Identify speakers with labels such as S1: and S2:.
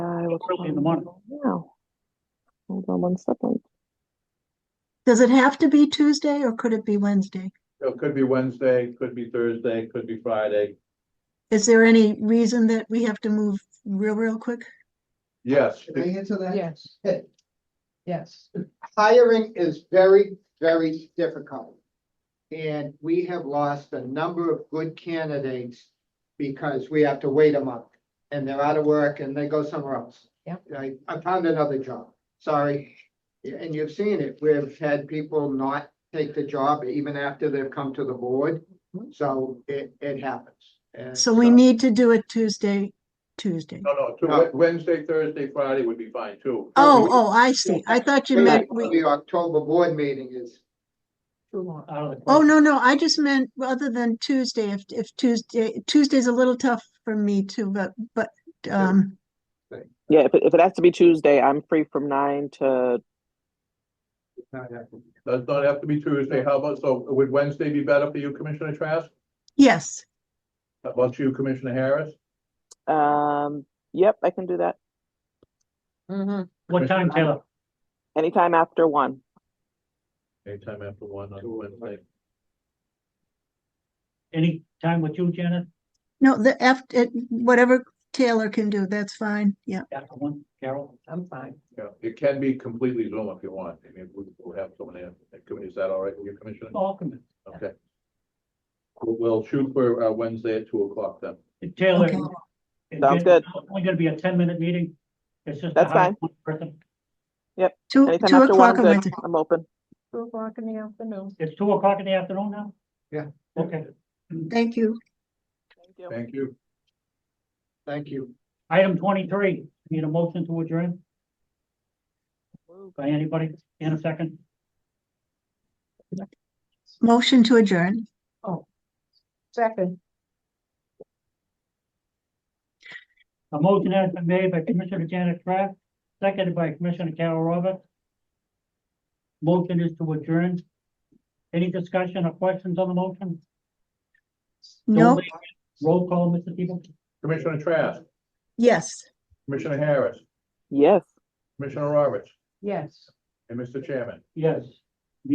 S1: o'clock
S2: early in the morning.
S1: Wow. Hold on one second.
S3: Does it have to be Tuesday or could it be Wednesday?
S4: So It could be Wednesday, could be Thursday, could be Friday.
S3: Is there any reason that we have to move real, real quick?
S4: Yes,
S5: Can I answer that?
S2: Yes, yes.
S5: Hiring is very, very difficult. And we have lost a number of good candidates because we have to wait a month. And they're out of work and they go somewhere else.
S2: Yep.
S5: I, I found another job, sorry. And you've seen it, we've had people not take the job even after they've come to the board.
S2: Mm-hmm.
S5: So it, it happens. And
S3: So
S1: Uh,
S3: we need to do it Tuesday, Tuesday.
S4: no, no,
S5: No.
S4: two- Wednesday, Thursday, Friday would be fine too.
S3: Oh, oh, I see. I thought you meant we,
S5: The October board meeting is
S2: Too long, out of the.
S3: oh, no, no, I just meant other than Tuesday, if, if Tuesday, Tuesday's a little tough for me too, but, but, um,
S1: Yeah, if it, if it has to be Tuesday, I'm free from nine to,
S5: not happening.
S4: Does not have to be Tuesday. How about, so would Wednesday be better for you, Commissioner Trask?
S3: yes.
S4: How about you, Commissioner Harris?
S1: um, yep, I can do that.
S2: Mhm. What time, Taylor?
S1: Anytime after one.
S4: Anytime after one on
S5: uh,
S4: Wednesday.
S2: Any time with you, Janet?
S3: No, the F, it, whatever Taylor can do, that's fine. Yeah.
S2: After one, Carol? I'm fine.
S4: Yeah, it can be completely Zoom if you want. I mean, we- we'll have someone in. Is that all right with you, Commissioner?
S2: Welcome.
S4: Okay. We'll- We'll shoot for uh, Wednesday at two o'clock then.
S2: Taylor.
S3: Okay.
S2: and
S1: Sounds
S2: Janet,
S1: good.
S2: it's Only gonna be a ten minute meeting. It's just. to
S1: That's
S2: hire
S1: fine.
S2: one person.
S3: Two,
S1: Anytime
S3: two
S1: after one,
S3: o'clock on
S1: I'm
S3: Wednesday.
S1: good. I'm open.
S6: Two o'clock in the afternoon.
S2: It's two o'clock in the afternoon now?
S5: Yeah.
S2: Okay,
S3: Thank you.
S1: Thank you.
S4: Thank you.
S5: Thank you.
S2: item twenty-three, need a motion to adjourn by anybody in a second?
S3: Motion to adjourn.
S6: Second,
S2: A motion has been made by Commissioner Janet Kraft, seconded by Commissioner Carol Roberts. Motion is to adjourn. Any discussion or questions on the motion?
S3: No,
S2: Roll call, Mr. Tebow?
S4: Commissioner Trask,
S3: yes.
S4: Commissioner Harris,
S1: Yes.
S4: Commissioner Roberts,
S6: yes.
S4: and Mr. Chairman.
S2: Yes.